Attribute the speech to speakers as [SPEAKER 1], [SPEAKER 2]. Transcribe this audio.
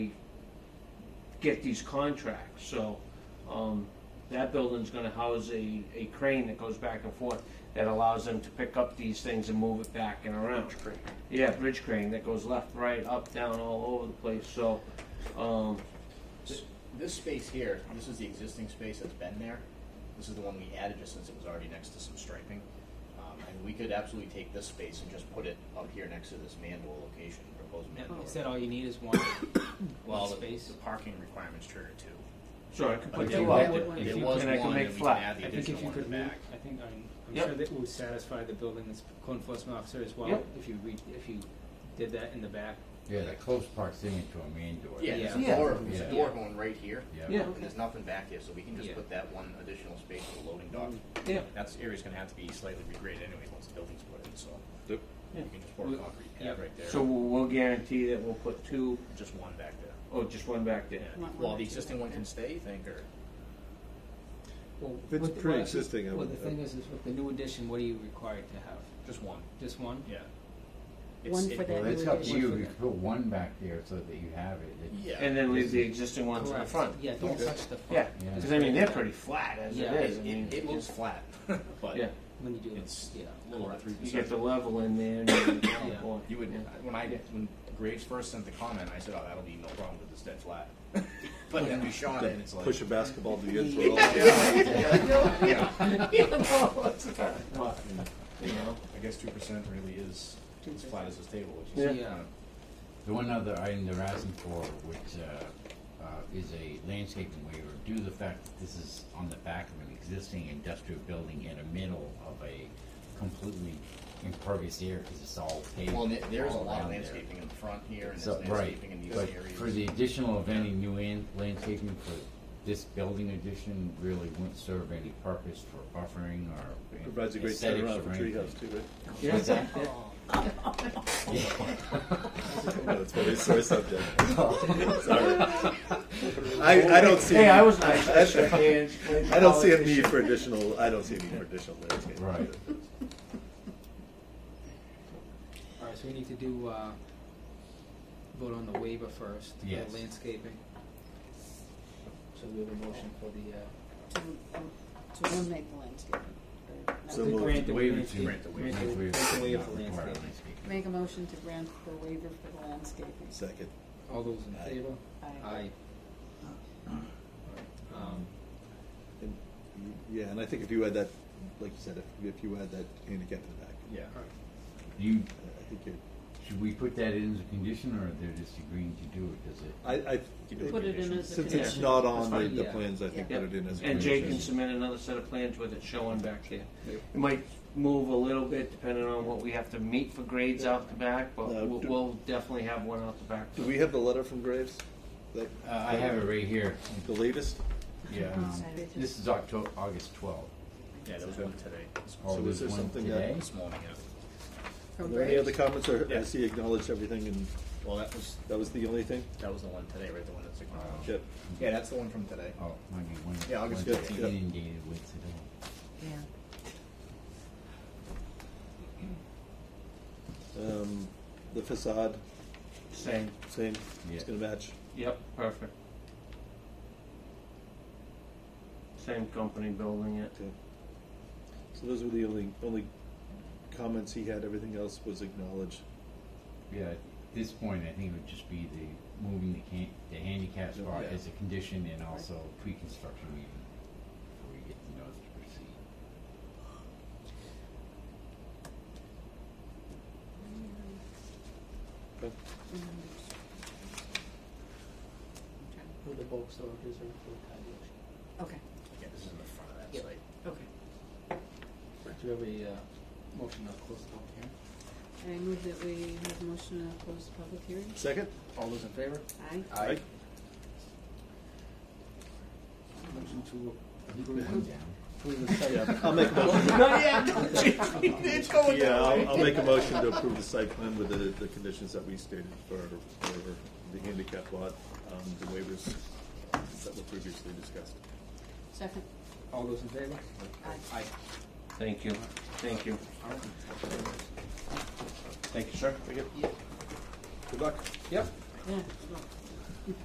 [SPEAKER 1] get these contracts, so, um, that building's gonna house a, a crane that goes back and forth that allows them to pick up these things and move it back and around.
[SPEAKER 2] crane.
[SPEAKER 1] Yeah, bridge crane that goes left, right, up, down, all over the place, so, um,
[SPEAKER 3] This- This space here, this is the existing space that's been there. This is the one we added just since it was already next to some striping. Um, and we could absolutely take this space and just put it up here next to this mandor location, proposed mandor.
[SPEAKER 4] Is that all you need is one?
[SPEAKER 3] Well, the,
[SPEAKER 4] space?
[SPEAKER 3] the parking requirements trigger two.
[SPEAKER 1] so I could
[SPEAKER 3] But
[SPEAKER 1] put
[SPEAKER 3] there
[SPEAKER 1] two
[SPEAKER 3] was,
[SPEAKER 1] up there.
[SPEAKER 4] if
[SPEAKER 3] there
[SPEAKER 4] you
[SPEAKER 3] was
[SPEAKER 1] can, I can
[SPEAKER 3] one,
[SPEAKER 1] make
[SPEAKER 3] and we can
[SPEAKER 1] flat.
[SPEAKER 3] add the
[SPEAKER 4] I think if
[SPEAKER 3] additional
[SPEAKER 4] you
[SPEAKER 3] one in
[SPEAKER 4] could
[SPEAKER 3] the
[SPEAKER 4] move,
[SPEAKER 3] back.
[SPEAKER 4] I think I'm, I'm
[SPEAKER 1] Yep.
[SPEAKER 4] sure that would satisfy the building ins- code enforcement officer as well.
[SPEAKER 1] Yep.
[SPEAKER 4] If you read, if you did that in the back.
[SPEAKER 5] Yeah, the close proximity to a main door.
[SPEAKER 3] Yeah, there's
[SPEAKER 1] Yeah.
[SPEAKER 3] a door, there's
[SPEAKER 5] Yeah.
[SPEAKER 3] a door going right here.
[SPEAKER 1] Yeah.
[SPEAKER 3] And there's nothing back here, so we can just
[SPEAKER 4] Yeah.
[SPEAKER 3] put that one additional space for the loading dock.
[SPEAKER 1] Yeah.
[SPEAKER 3] That's area's gonna have to be slightly regraded anyway, once the building's put in, so.
[SPEAKER 2] Yep.
[SPEAKER 3] You can just pour a
[SPEAKER 1] We-
[SPEAKER 3] concrete
[SPEAKER 4] yeah.
[SPEAKER 3] pad right there.
[SPEAKER 1] So we'll guarantee that we'll put two,
[SPEAKER 3] Just one back there.
[SPEAKER 1] oh, just one back there.
[SPEAKER 6] Want one
[SPEAKER 3] Well,
[SPEAKER 6] or
[SPEAKER 3] the
[SPEAKER 6] two
[SPEAKER 3] existing
[SPEAKER 6] back
[SPEAKER 3] one
[SPEAKER 6] there.
[SPEAKER 3] can stay, you think, or?
[SPEAKER 4] Well,
[SPEAKER 2] It's
[SPEAKER 4] with the-
[SPEAKER 2] pre-existing, I
[SPEAKER 4] Well, the
[SPEAKER 2] would-
[SPEAKER 4] thing is, is with the new addition, what are you required to have?
[SPEAKER 3] Just one.
[SPEAKER 4] Just one?
[SPEAKER 3] Yeah.
[SPEAKER 6] One
[SPEAKER 3] it-
[SPEAKER 6] for
[SPEAKER 5] Well,
[SPEAKER 6] that
[SPEAKER 5] it's
[SPEAKER 6] new
[SPEAKER 5] up to
[SPEAKER 6] addition.
[SPEAKER 5] you, you can put one back there so that you have it. It's-
[SPEAKER 3] Yeah.
[SPEAKER 1] And then leave the existing ones in the
[SPEAKER 4] Correct.
[SPEAKER 1] front.
[SPEAKER 4] Yeah, don't
[SPEAKER 2] Okay.
[SPEAKER 4] touch the
[SPEAKER 1] Yeah,
[SPEAKER 4] front
[SPEAKER 5] Yeah.
[SPEAKER 1] because I mean, they're pretty flat as it
[SPEAKER 4] Yeah.
[SPEAKER 1] is, I
[SPEAKER 3] It,
[SPEAKER 1] mean,
[SPEAKER 3] it, it looks flat, but
[SPEAKER 1] yeah,
[SPEAKER 4] when you do it.
[SPEAKER 3] it's
[SPEAKER 4] Yeah.
[SPEAKER 3] a little over three
[SPEAKER 1] you get
[SPEAKER 3] percent.
[SPEAKER 1] the level in there and then the downpour.
[SPEAKER 3] You would,
[SPEAKER 1] Yeah.
[SPEAKER 3] when I,
[SPEAKER 1] Yeah.
[SPEAKER 3] when Graves first sent the comment, I said, oh, that'll be no problem with this dead flat. But then we shot it and it's like.
[SPEAKER 2] Push a basketball to the end for all.
[SPEAKER 1] But, you know,
[SPEAKER 3] I guess two percent really is as
[SPEAKER 6] 2%.
[SPEAKER 3] flat as this table, which
[SPEAKER 1] Yeah.
[SPEAKER 3] is.
[SPEAKER 4] Yeah.
[SPEAKER 5] The one other item they're asking for, which uh, uh, is a landscaping waiver, due to the fact that this is on the back of an existing industrial building in the middle of a completely impervious area, because it's all paved.
[SPEAKER 3] Well, and there- there is a
[SPEAKER 5] all
[SPEAKER 3] lot of
[SPEAKER 5] around there.
[SPEAKER 3] landscaping in the front here and there's
[SPEAKER 5] So, right,
[SPEAKER 3] landscaping in these
[SPEAKER 5] but
[SPEAKER 3] areas.
[SPEAKER 5] for the additional of any new in- landscaping for this building addition really wouldn't serve any purpose for buffering or.
[SPEAKER 2] Provides a great
[SPEAKER 5] aesthetics
[SPEAKER 2] turnaround for
[SPEAKER 5] or
[SPEAKER 2] treehouse
[SPEAKER 5] anything.
[SPEAKER 2] too, right?
[SPEAKER 1] yeah, yeah.
[SPEAKER 4] Oh.
[SPEAKER 2] No, That's my sore subject. Sorry. I, I don't see.
[SPEAKER 1] Hey,
[SPEAKER 2] any-
[SPEAKER 1] I was nice, I shook
[SPEAKER 2] I
[SPEAKER 1] hands.
[SPEAKER 2] I don't see a need for additional, I don't see a need for additional landscaping.
[SPEAKER 5] Right.
[SPEAKER 4] All right, so we need to do, uh, vote on the waiver first, the
[SPEAKER 5] Yes.
[SPEAKER 4] landscaping. So we have a motion for the, uh,
[SPEAKER 6] To, um, to eliminate the landscaping. or not
[SPEAKER 2] So
[SPEAKER 6] to-
[SPEAKER 2] moved.
[SPEAKER 4] grant the
[SPEAKER 5] Waiver
[SPEAKER 4] landscape-
[SPEAKER 5] to
[SPEAKER 3] Grant the waiver.
[SPEAKER 4] grant the-
[SPEAKER 5] waiver
[SPEAKER 4] grant the waiver
[SPEAKER 5] not
[SPEAKER 4] for
[SPEAKER 5] require
[SPEAKER 4] landscaping.
[SPEAKER 5] landscaping.
[SPEAKER 6] Make a motion to grant the waiver for the landscaping.
[SPEAKER 2] Second.
[SPEAKER 4] All those in
[SPEAKER 2] Aye.
[SPEAKER 4] favor?
[SPEAKER 6] Aye.
[SPEAKER 4] Um,
[SPEAKER 2] And, Yeah, and I think if you add that, like you said, if, if you add that handicap in the back,
[SPEAKER 3] Yeah.
[SPEAKER 4] all right.
[SPEAKER 5] You,
[SPEAKER 2] I I think you're,
[SPEAKER 5] should we put that in as a condition, or they're just agreeing to do it, does it?
[SPEAKER 2] I, I,
[SPEAKER 3] Keep it
[SPEAKER 6] Put it in as a
[SPEAKER 2] since it's
[SPEAKER 6] condition.
[SPEAKER 2] not on the,
[SPEAKER 4] fine.
[SPEAKER 2] the
[SPEAKER 4] Yeah.
[SPEAKER 2] plans, I think
[SPEAKER 6] Yeah.
[SPEAKER 2] put it in as. a
[SPEAKER 1] And Jay
[SPEAKER 2] condition.
[SPEAKER 1] can submit another set of plans with it showing back there.
[SPEAKER 4] Yep.
[SPEAKER 1] It might move a little bit depending on what we have to meet for grades out the back, but
[SPEAKER 2] Now,
[SPEAKER 1] we'll,
[SPEAKER 2] do-
[SPEAKER 1] we'll definitely have one out the back.
[SPEAKER 2] Do we have the letter from Graves? That,
[SPEAKER 5] Uh, I have it right here,
[SPEAKER 2] the latest?
[SPEAKER 5] yeah, um, this is Octo, August twelfth.
[SPEAKER 3] Yeah, there was one today. this
[SPEAKER 5] Oh,
[SPEAKER 2] So
[SPEAKER 5] there's
[SPEAKER 2] is there
[SPEAKER 5] one
[SPEAKER 2] something that-
[SPEAKER 5] today?
[SPEAKER 3] This morning, yeah.
[SPEAKER 2] Are
[SPEAKER 6] From
[SPEAKER 2] there any other
[SPEAKER 6] Graves?
[SPEAKER 2] comments, or
[SPEAKER 3] Yeah.
[SPEAKER 2] has he acknowledged everything and
[SPEAKER 3] Well, that was,
[SPEAKER 2] that was the only thing?
[SPEAKER 3] that was the one today, right, the one that's acknowledged.
[SPEAKER 2] Yep.
[SPEAKER 3] Yeah, that's the one from today.
[SPEAKER 5] Oh, might be one.
[SPEAKER 3] Yeah, August
[SPEAKER 5] one
[SPEAKER 2] 15th.
[SPEAKER 5] Inundated with today.
[SPEAKER 6] Yeah.
[SPEAKER 2] Um, the facade,
[SPEAKER 1] Same,
[SPEAKER 2] same, it's
[SPEAKER 5] Yeah.
[SPEAKER 2] gonna match.
[SPEAKER 1] yep, perfect. Same company building it.
[SPEAKER 2] Okay. So those were the only, only comments he had, everything else was acknowledged.
[SPEAKER 5] Yeah, at this point, I think it would just be the moving the can, the handicap spot
[SPEAKER 2] Yeah.
[SPEAKER 5] as a condition and also pre-construction meeting before we get the notice to proceed.
[SPEAKER 2] Okay.
[SPEAKER 4] Who the bulk soldiers are for car dealership.
[SPEAKER 6] Okay,
[SPEAKER 3] Yeah, this is in the front of that
[SPEAKER 4] Yep.
[SPEAKER 3] site.
[SPEAKER 6] okay.
[SPEAKER 4] Do you have a, uh, motion to close the public hearing?
[SPEAKER 6] I move that we have a motion to close the public hearing.
[SPEAKER 2] Second?
[SPEAKER 3] All those in favor?
[SPEAKER 6] Aye.
[SPEAKER 2] Aye.
[SPEAKER 4] Motion to
[SPEAKER 5] One
[SPEAKER 4] approve,
[SPEAKER 5] down.
[SPEAKER 4] approve the site.
[SPEAKER 2] Yeah, I'll make a motion,
[SPEAKER 1] Not yet, it's going
[SPEAKER 2] yeah, I'll, I'll make a motion to approve the site plan with the, the conditions that we stated for, for the handicap lot, um, the waivers that were previously discussed.
[SPEAKER 6] Second.
[SPEAKER 4] All those in favor?
[SPEAKER 6] Aye.
[SPEAKER 4] Aye.
[SPEAKER 1] Thank you, thank you. Thank you, sir.
[SPEAKER 2] Good luck.
[SPEAKER 4] Yep.
[SPEAKER 6] Yeah.